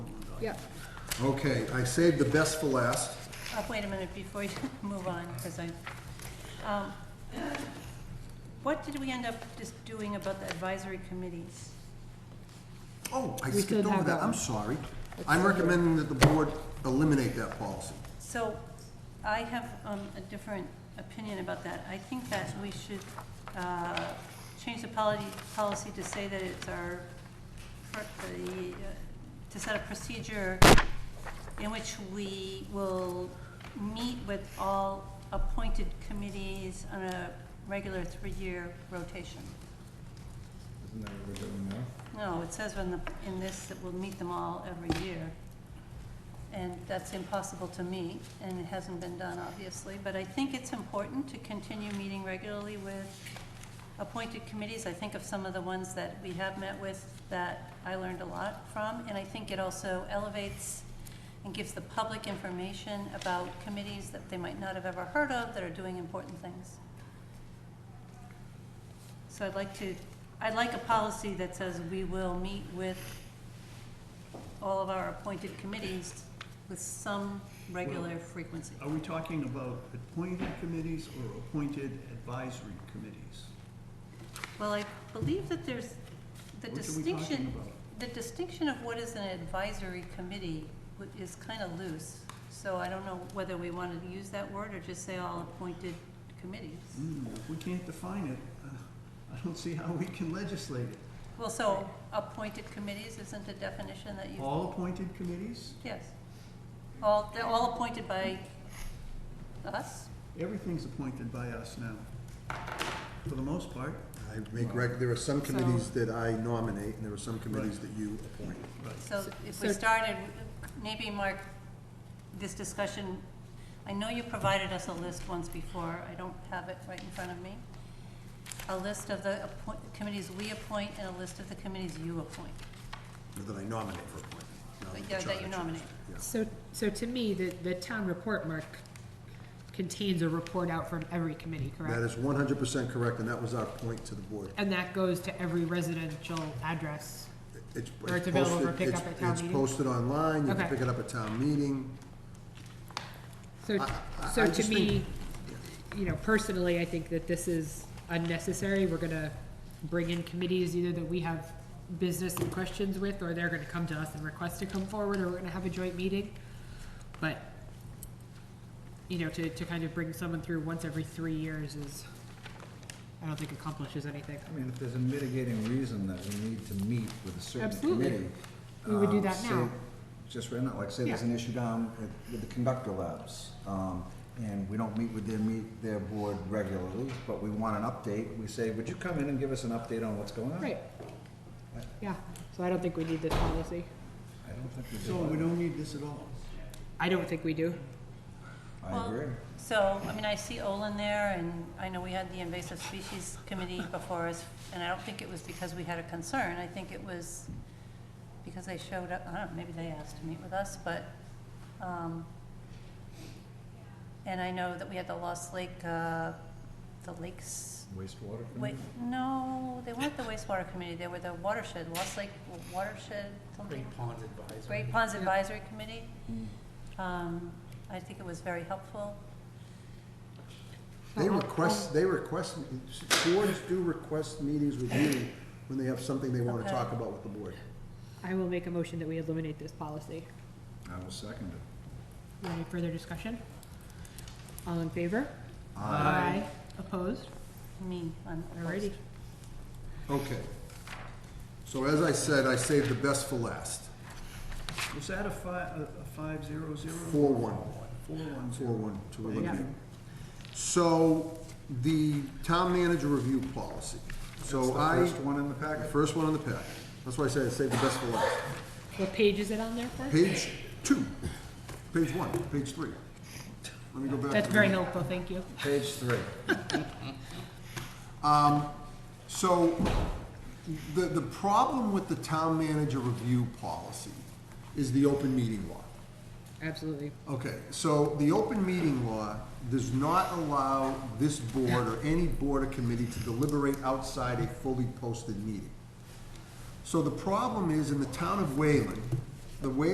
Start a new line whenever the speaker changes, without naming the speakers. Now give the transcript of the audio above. Yep.
Okay, I saved the best for last.
Uh, Wait a minute, before you move on, because I, um, what did we end up just doing about the advisory committees?
Oh, I
We
skipped
did
over
have that
that, I'm
one.
sorry. I'm recommending that the board eliminate that policy.
So I have um, a different opinion about that. I think that we should uh, change the policy, policy to say that it's our, per- the, uh, to set a procedure in which we will meet with all appointed committees on a regular three-year rotation.
Isn't that what we're doing now?
No, it says in the, in this that we'll meet them all every year. And that's impossible to me, and it hasn't been done, obviously. But I think it's important to continue meeting regularly with appointed committees. I think of some of the ones that we have met with that I learned a lot from. And I think it also elevates and gives the public information about committees that they might not have ever heard of that are doing important things. So I'd like to, I'd like a policy that says we will meet with all of our appointed committees with some regular frequency.
Are we talking about appointed committees or appointed advisory committees?
Well, I believe that there's the
What are we
distinction,
talking about?
the distinction of what is an advisory committee wh- is kind of loose. So I don't know whether we want to use that word or just say all appointed committees.
Hmm, if we can't define it, uh, I don't see how we can legislate it.
Well, so appointed committees isn't a definition that you,
All appointed committees,
yes. All, they're all appointed by us?
everything's appointed by us now, for the most part.
I make rec, there are some committees that I nominate, and there are some committees that you appoint.
Right.
So if we
So-
started, maybe Mark, this discussion, I know you provided us a list once before, I don't have it right in front of me. A list of the appoint, committees we appoint and a list of the committees you appoint,
Or That I nominate for appointment. now
but
the
yeah, that
charter
you
changes.
nominate.
So, so to me, the, the town report, Mark, contains a report out from every committee, correct?
That is one hundred percent correct, and that was our point to the board.
And that goes to every residential address.
It's
Or it's available for
posted-
pickup
it's-
at town
It's
meeting?
posted online, you can
Okay.
pick it up at town meeting.
So,
I- I
so to
just
me, you know, personally, I think that this is unnecessary. We're gonna bring in committees either that we have business and questions with, or they're gonna come to us and request to come forward, or we're gonna have a joint meeting. But, you know, to, to kind of bring someone through once every three years is, I don't think accomplishes anything.
I mean, if there's a mitigating reason that we need to meet with a certain
Absolutely.
committee.
We would do
um,
that
say-
now.
Just right now, like say there's
Yeah.
an issue down at- with the conductor labs, um, and we don't meet with their, meet their board regularly, but we want an update, we say, would you come in and give us an update on what's going on?
Right. Yeah, so I don't think we need this policy.
I don't think we do.
So we don't need this at all.
I don't think we do.
I agree.
So, I mean, I see Olin there, and I know we had the invasive species committee before us, and I don't think it was because we had a concern, I think it was because they showed up, I don't know, maybe they asked to meet with us, but, um, and I know that we had the Lost Lake, uh, the Lakes,
Wastewater.
wait, no, they weren't the wastewater committee, they were the watershed, Lost Lake Watershed, something.
Great Ponds Advisory.
Great Ponds Advisory Committee. Um, I think it was very helpful.
They request, they request, boards do request meetings with you when they have something they wanna
Okay.
talk about with the board.
I will make a motion that we eliminate this policy.
I will second it.
Any further discussion? All in favor?
Aye.
Opposed?
Me, I'm opposed.
Alrighty.
Okay. So as I said, I saved the best for last.
Was that a five, a a five zero zero?
Four one.
Four one
Four
zero.
one to
Yeah.
eliminate. So the town manager review policy. So I.
That's the first one in the
The
packet.
first one on the packet. That's why I said I saved the best for last.
What page is it on there for?
Page two, page one, page three. Let me go back. to
That's
the-
very helpful, thank you.
Page three.
Um, So, the, the problem with the town manager review policy is the open meeting law.
Absolutely.
Okay, so the open meeting law does not allow this board or any board or committee to deliberate outside a fully posted meeting. So the problem is, in the town of Wayland, the Wayland